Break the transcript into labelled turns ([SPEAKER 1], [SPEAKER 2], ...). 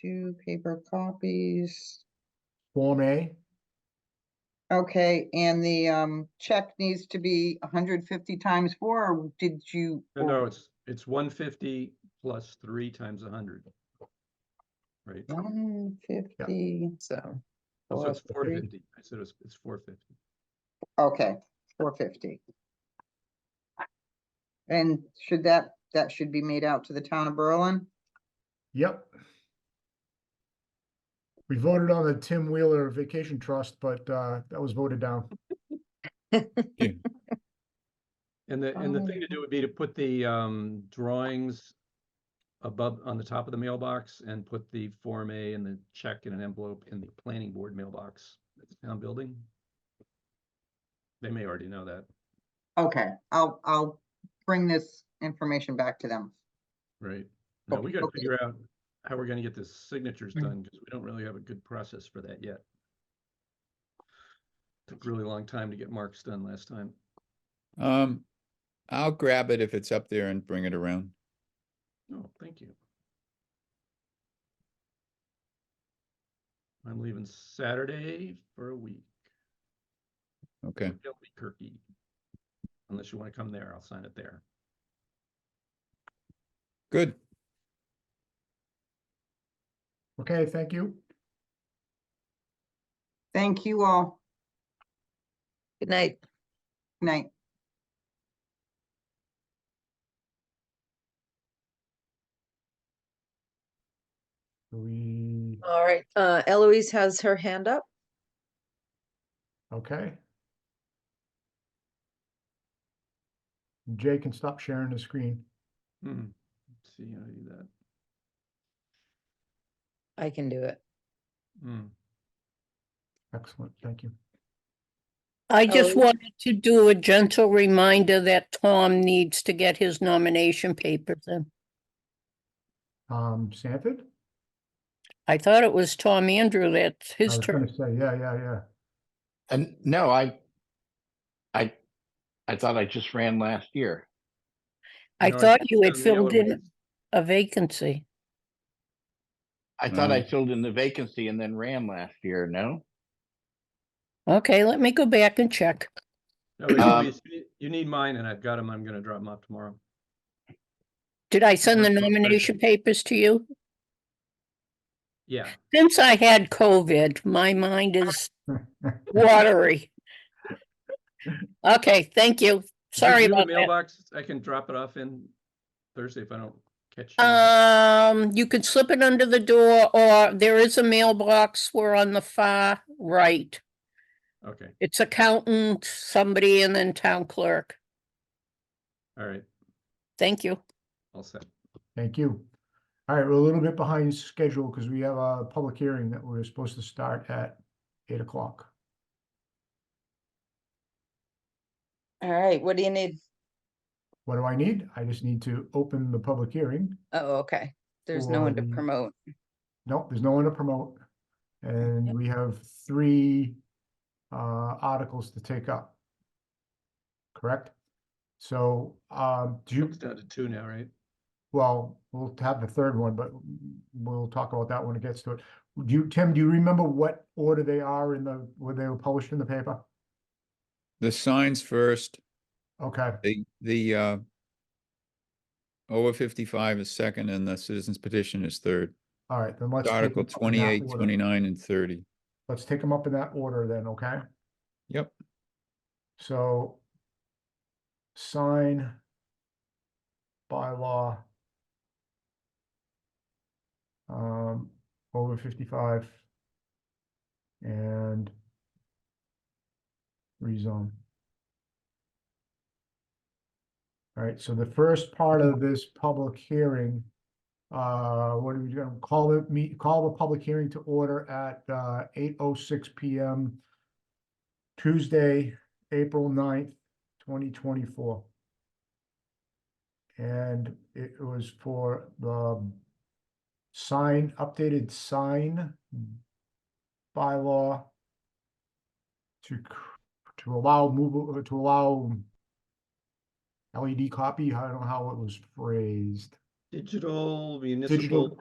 [SPEAKER 1] two paper copies.
[SPEAKER 2] Form A,
[SPEAKER 1] Okay, and the um check needs to be hundred fifty times four, or did you?
[SPEAKER 3] No,
[SPEAKER 1] or-
[SPEAKER 3] no, it's, it's one fifty plus three times a hundred. Right,
[SPEAKER 1] Oh, One fifty,
[SPEAKER 4] So,
[SPEAKER 3] so it's
[SPEAKER 1] Four
[SPEAKER 3] four
[SPEAKER 1] fifty.
[SPEAKER 3] fifty, I said it's, it's four fifty.
[SPEAKER 1] okay, four fifty. And should that, that should be made out to the town of Berlin?
[SPEAKER 2] yep. We voted on the Tim Wheeler Vacation Trust, but uh, that was voted down.
[SPEAKER 3] And the, and the thing to
[SPEAKER 1] Oh.
[SPEAKER 3] do would be to put the, um, drawings above, on the top of the mailbox and put the Form A and the check in an envelope in the planning board mailbox at the town building. They may already know that,
[SPEAKER 1] Okay, I'll, I'll bring this information back to them.
[SPEAKER 3] right? Now,
[SPEAKER 1] Okay,
[SPEAKER 3] we gotta
[SPEAKER 1] okay.
[SPEAKER 3] figure out how we're gonna get the signatures
[SPEAKER 5] Mm-hmm.
[SPEAKER 1] Mm.
[SPEAKER 3] done, because we don't really have a good process for that yet. Took a really long time to get marks done last time.
[SPEAKER 4] um, I'll grab it if it's up there and bring it around.
[SPEAKER 3] Oh, thank you. I'm leaving Saturday for a week,
[SPEAKER 4] Okay,
[SPEAKER 3] Albuquerque. Unless you want to come there, I'll sign it there.
[SPEAKER 4] good.
[SPEAKER 2] Okay, thank you.
[SPEAKER 1] Thank you all.
[SPEAKER 6] Good night.
[SPEAKER 1] Good Night.
[SPEAKER 2] We,
[SPEAKER 6] All right, uh, Eloise has her hand up.
[SPEAKER 2] okay. Jay can stop sharing the screen.
[SPEAKER 3] Hmm, let's see how to do that.
[SPEAKER 6] I can do it.
[SPEAKER 3] Hmm,
[SPEAKER 2] Excellent, thank you.
[SPEAKER 5] I just
[SPEAKER 6] Oh.
[SPEAKER 5] wanted to do a gentle reminder that Tom needs to get his nomination papers in.
[SPEAKER 2] Um, Sanford?
[SPEAKER 5] I thought it was Tom Andrew that's
[SPEAKER 2] I
[SPEAKER 5] his
[SPEAKER 2] was gonna
[SPEAKER 5] turn.
[SPEAKER 2] Say, yeah, yeah, yeah.
[SPEAKER 7] And no, I, I, I thought I just ran last year.
[SPEAKER 5] I
[SPEAKER 3] no,
[SPEAKER 5] thought
[SPEAKER 3] think
[SPEAKER 5] you had
[SPEAKER 3] it's on the
[SPEAKER 5] filled
[SPEAKER 3] Eloise.
[SPEAKER 5] in a vacancy.
[SPEAKER 7] I thought I
[SPEAKER 4] Um,
[SPEAKER 7] filled in the vacancy and then ran last year, no?
[SPEAKER 5] Okay, let me go back and check.
[SPEAKER 3] No, wait,
[SPEAKER 7] Um,
[SPEAKER 3] Eloise, you need- You need mine and I've got them. I'm gonna drop them off tomorrow.
[SPEAKER 5] Did I send the
[SPEAKER 3] That's perfect.
[SPEAKER 5] nomination papers to you?
[SPEAKER 3] Yeah,
[SPEAKER 5] Since I had COVID, my mind is watery. Okay, thank you.
[SPEAKER 3] Is there
[SPEAKER 5] Sorry
[SPEAKER 3] you in the
[SPEAKER 5] about that.
[SPEAKER 3] Mailbox, I can drop it off in Thursday if I don't catch. you.
[SPEAKER 5] Um, you could slip it under the door or there is a mailbox. We're on the far right.
[SPEAKER 3] Okay,
[SPEAKER 5] It's accountant, somebody, and then town clerk.
[SPEAKER 3] all right,
[SPEAKER 5] Thank you.
[SPEAKER 3] all set.
[SPEAKER 2] Thank you. All right, we're a little bit behind schedule because we have a public hearing that we're supposed to start at eight o'clock.
[SPEAKER 6] All right, what do you need?
[SPEAKER 2] What do I need? I just need to open the public hearing.
[SPEAKER 6] Oh, okay. There's no one to
[SPEAKER 2] One.
[SPEAKER 6] promote.
[SPEAKER 2] Nope, there's no one to promote. And
[SPEAKER 6] Yep.
[SPEAKER 2] we have three uh articles to take up. Correct? So um do you,
[SPEAKER 3] It's down to two now, right?
[SPEAKER 2] well, we'll have the third one, but we'll talk about that when it gets to it. Do you, Tim, do you remember what order they are in the, where they were published in the paper?
[SPEAKER 4] The signs first,
[SPEAKER 2] Okay,
[SPEAKER 4] the, the, uh, over fifty-five is second and the citizens petition is third.
[SPEAKER 2] all right, then let's. take
[SPEAKER 4] Article
[SPEAKER 2] 'em up in that
[SPEAKER 4] 28, 29,
[SPEAKER 2] order.
[SPEAKER 4] and thirty.
[SPEAKER 2] Let's take them up in that order then, okay?
[SPEAKER 4] Yep,
[SPEAKER 2] So sign bylaw um, over fifty-five and rezone. All right, so the first part of this public hearing, uh, what are we gonna call the meet, call the public hearing to order at uh eight oh six PM Tuesday, April 9th, twenty twenty-four. And it was for the sign, updated sign bylaw to, c- to allow move, to allow E LED copy, I don't know how it was phrased.
[SPEAKER 3] Digital municipal